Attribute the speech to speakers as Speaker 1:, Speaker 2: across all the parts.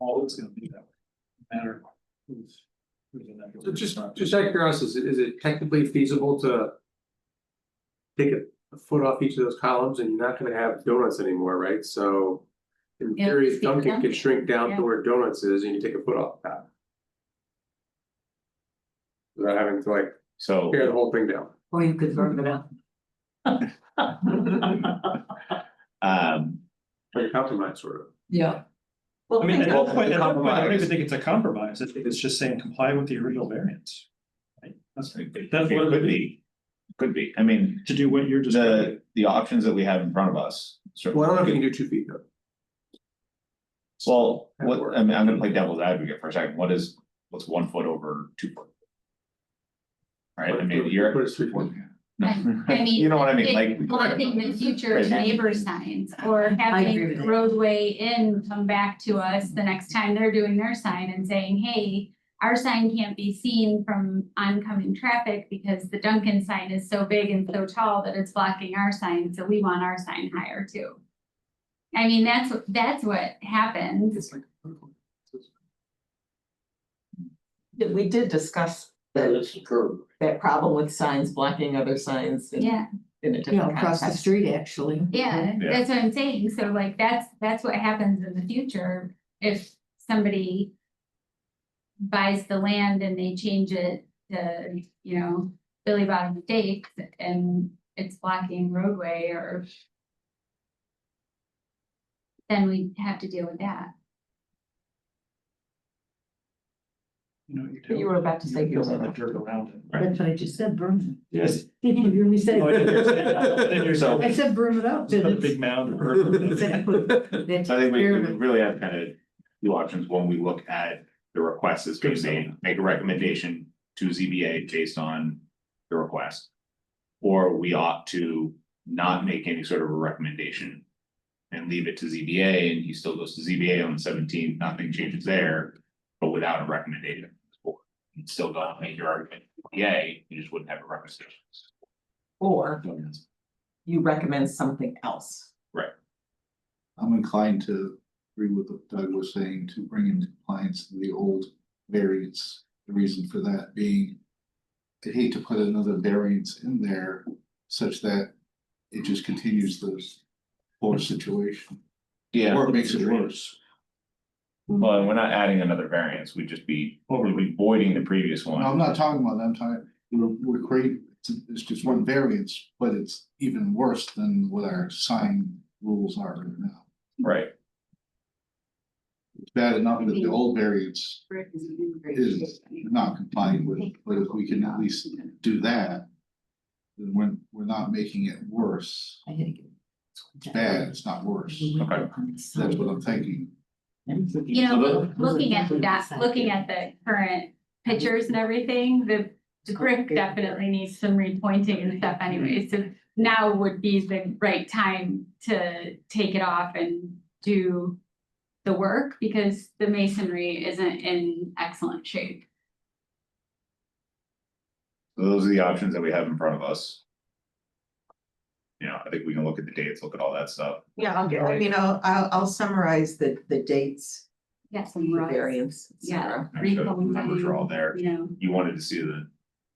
Speaker 1: always gonna be that way, no matter who's. who's in that.
Speaker 2: So just, just out of curiosity, is it- is it technically feasible to? Take a- a foot off each of those columns and you're not gonna have donuts anymore, right? So. In
Speaker 3: Yeah,
Speaker 2: theory,
Speaker 3: it's
Speaker 2: Dunkin'
Speaker 3: Dunkin',
Speaker 2: can shrink down
Speaker 3: yeah.
Speaker 2: to where donuts is and you take a foot off that. Without having to like
Speaker 4: So,
Speaker 2: tear the whole thing down.
Speaker 3: Or you could verb it out.
Speaker 4: um,
Speaker 2: Like a compromise sort of.
Speaker 3: Yeah.
Speaker 1: I mean, at
Speaker 3: think
Speaker 1: that
Speaker 3: about
Speaker 1: point, at that point, I don't
Speaker 2: Compromise.
Speaker 1: even think it's a compromise, I think it's just saying comply with the original variance. Right, that's,
Speaker 4: it
Speaker 1: that's what it would
Speaker 4: could
Speaker 1: be,
Speaker 4: be, could be, I mean,
Speaker 1: to do what you're just.
Speaker 4: the, the options that we have in front of us.
Speaker 2: Well, I don't know if you
Speaker 4: certainly-
Speaker 2: can do two feet though.
Speaker 4: Well, what, I mean, I'm gonna play devil's advocate for a second, what is, what's one foot over two foot? Right, I mean, you're.
Speaker 2: Put it three feet.
Speaker 4: No.
Speaker 5: I mean,
Speaker 4: You know what I mean, like.
Speaker 5: think- Well, I think the future
Speaker 4: Right.
Speaker 5: neighbor signs or
Speaker 3: agree with
Speaker 5: having
Speaker 3: that.
Speaker 5: roadway in come back to us the next time they're doing their sign and saying, hey. Our sign can't be seen from oncoming traffic because the Duncan sign is so big and so tall that it's blocking our sign, so we want our sign higher too. I mean, that's, what that's what happens.
Speaker 2: It's like.
Speaker 6: Yeah, We did discuss
Speaker 7: That
Speaker 6: that,
Speaker 7: is true.
Speaker 6: that problem with signs blocking other signs in,
Speaker 5: Yeah,
Speaker 6: in a
Speaker 3: Yeah,
Speaker 6: different
Speaker 3: across the
Speaker 6: context.
Speaker 3: street, actually.
Speaker 5: yeah,
Speaker 4: Yeah.
Speaker 5: that's what I'm saying. So like, that's, that's what happens in the future if somebody buys the land and they change it to, you know, Billy Bottom Steaks and it's blocking roadway or then we have to deal with that.
Speaker 1: You know, you do.
Speaker 6: You were about to say.
Speaker 1: You don't have to jerk around it.
Speaker 3: That's what I just said, berm.
Speaker 4: Yes.
Speaker 3: Did you hear me say?
Speaker 7: Oh,
Speaker 1: No, I think you're saying- I think you're saying-
Speaker 3: I said berm it out.
Speaker 1: It's not a big mound or.
Speaker 3: That's
Speaker 4: So I think we we
Speaker 3: experiment.
Speaker 4: really have kind of two options when we look at the request that's being made, make a recommendation to ZBA based on the request. Or we ought to not make any sort of a recommendation and leave it to ZBA and he still goes to ZBA on the seventeenth, nothing changes there, but without a recommendation. You'd still go out and make your argument, yay, you just wouldn't have a recommendation.
Speaker 6: Or you recommend something else.
Speaker 7: I'm inclined to agree with what Doug was saying, to bring into compliance the old variance. The reason for that being, I hate to put another variance in there such that it just continues this poor situation,
Speaker 4: Yeah.
Speaker 7: or it makes it worse.
Speaker 4: Well, and we're not adding another variance, we'd just be, we'd be voiding the previous one.
Speaker 7: No, I'm not talking about that, I'm talking, we're, we're creating, it's, it's just one variance, but it's even worse than what our sign rules are right now.
Speaker 4: Right,
Speaker 7: It's bad enough that the old variance is not complying with, but if we can at least do that. Then we're, we're not making it worse,
Speaker 3: I had to get-
Speaker 7: It's bad, it's not worse,
Speaker 3: Mm-hmm.
Speaker 4: okay.
Speaker 7: that's what I'm thinking.
Speaker 5: You know, loo- looking at that, looking at the current pictures and everything, the the brick definitely needs some repointing and stuff anyway. So now would be the right time to take it off and do the work because the masonry isn't in excellent shape.
Speaker 4: So Those are the options that we have in front of us. You know, I think we can look at the dates, look at all that stuff.
Speaker 6: Yeah, I'll get, I mean, I'll, I'll, I'll summarize the, the dates,
Speaker 5: Yes,
Speaker 6: the variance, et
Speaker 5: Yeah.
Speaker 6: cetera.
Speaker 4: Make sure the Numbers are all there.
Speaker 5: You know,
Speaker 4: You wanted to see the.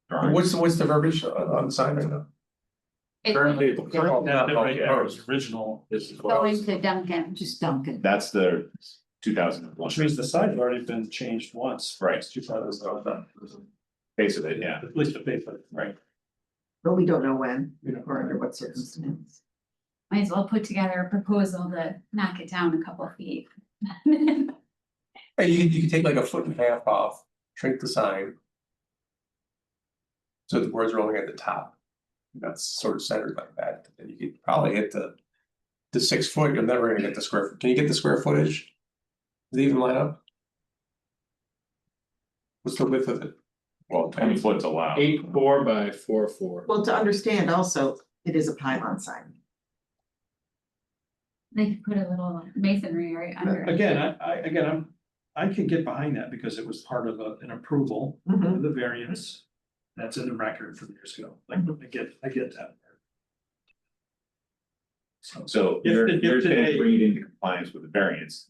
Speaker 2: What's, the- what's the verbiage on on the sign right now?
Speaker 5: it's
Speaker 2: Currently.
Speaker 1: Now,
Speaker 2: currently
Speaker 1: right,
Speaker 2: proposed.
Speaker 1: ours, original,
Speaker 5: going to Duncan.
Speaker 3: Just Dunkin'.
Speaker 4: That's the two thousand and one
Speaker 1: which means the side had already been changed once.
Speaker 4: Right.
Speaker 1: Two sides are done.
Speaker 4: face of it, yeah.
Speaker 1: At least the base of it, right?
Speaker 6: But we don't know when
Speaker 1: You know.
Speaker 6: or under what circumstance.
Speaker 5: Might as well put together a proposal to knock it down a couple feet.
Speaker 2: Hey, You could, you could take like a foot and a half off, shrink the sign. So the words are only at the top. That's sort of centered like that, and you could probably hit the. The six foot, you're never gonna get the square, can you get the square footage? Does it even line up? What's the width of it?
Speaker 4: Well, twenty foot's allowed.
Speaker 8: Eight four by four four.
Speaker 6: Well, to understand also, it is a pylon sign.
Speaker 5: They could put a little masonry right under it.
Speaker 1: Again, I, I, again, I'm, I can get behind that because it was part of a- an approval
Speaker 6: Mm-hmm.
Speaker 1: of the variance. That's in the record from years ago, like, I get, I get that. So.
Speaker 4: So
Speaker 1: If-
Speaker 4: you're,
Speaker 1: if
Speaker 4: you're saying
Speaker 1: today-
Speaker 4: bring it into compliance with the variance,